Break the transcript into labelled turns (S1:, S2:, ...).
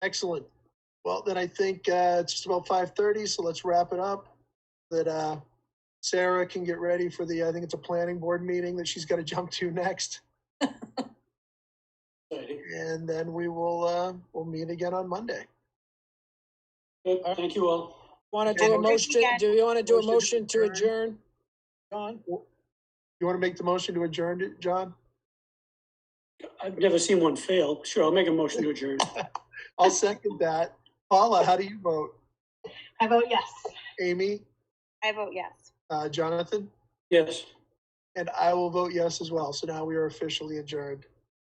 S1: Excellent. Well, then I think uh, it's just about five thirty, so let's wrap it up. That uh, Sarah can get ready for the, I think it's a planning board meeting that she's got to jump to next.
S2: Exciting.
S1: And then we will, uh, we'll meet again on Monday.
S2: Good, thank you all.
S3: Want to
S1: Have
S3: do
S1: a
S3: a
S1: good
S3: motion, do you want to do a
S1: Motion
S3: motion
S1: to
S3: to adjourn? John?
S1: You want to make the motion to adjourn, it, John?
S2: I've never seen one fail. Sure, I'll make a motion to adjourn.
S1: I'll second that. Paula, how do you vote?
S4: I vote yes.
S1: Amy,
S5: I vote yes.
S1: uh, Jonathan?
S2: Yes.
S1: And I will vote yes as well. So now we are officially adjourned.